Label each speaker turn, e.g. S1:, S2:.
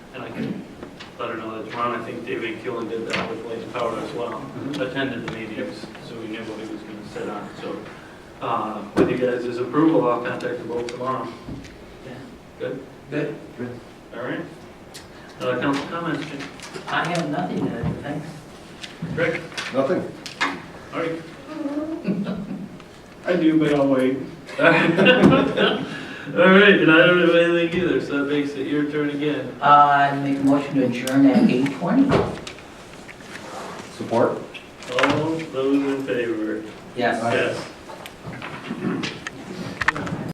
S1: better know that it's Ron. I think David Keelan did that with Blaze Power as well, attended the meetings, so we knew what he was going to sit on. So uh, with you guys' approval, I'll contact the board tomorrow.
S2: Good.
S1: All right? Uh, Council comments, Jim?
S2: I have nothing to, thanks.
S1: Rick?
S3: Nothing.
S1: All right.
S4: I do, but I'll wait.
S1: All right, and I don't have anything either, so that makes it your turn again.
S2: Uh, make a motion to adjourn at eight twenty.
S3: Support?
S1: All those in favor?
S2: Yes.
S1: Yes.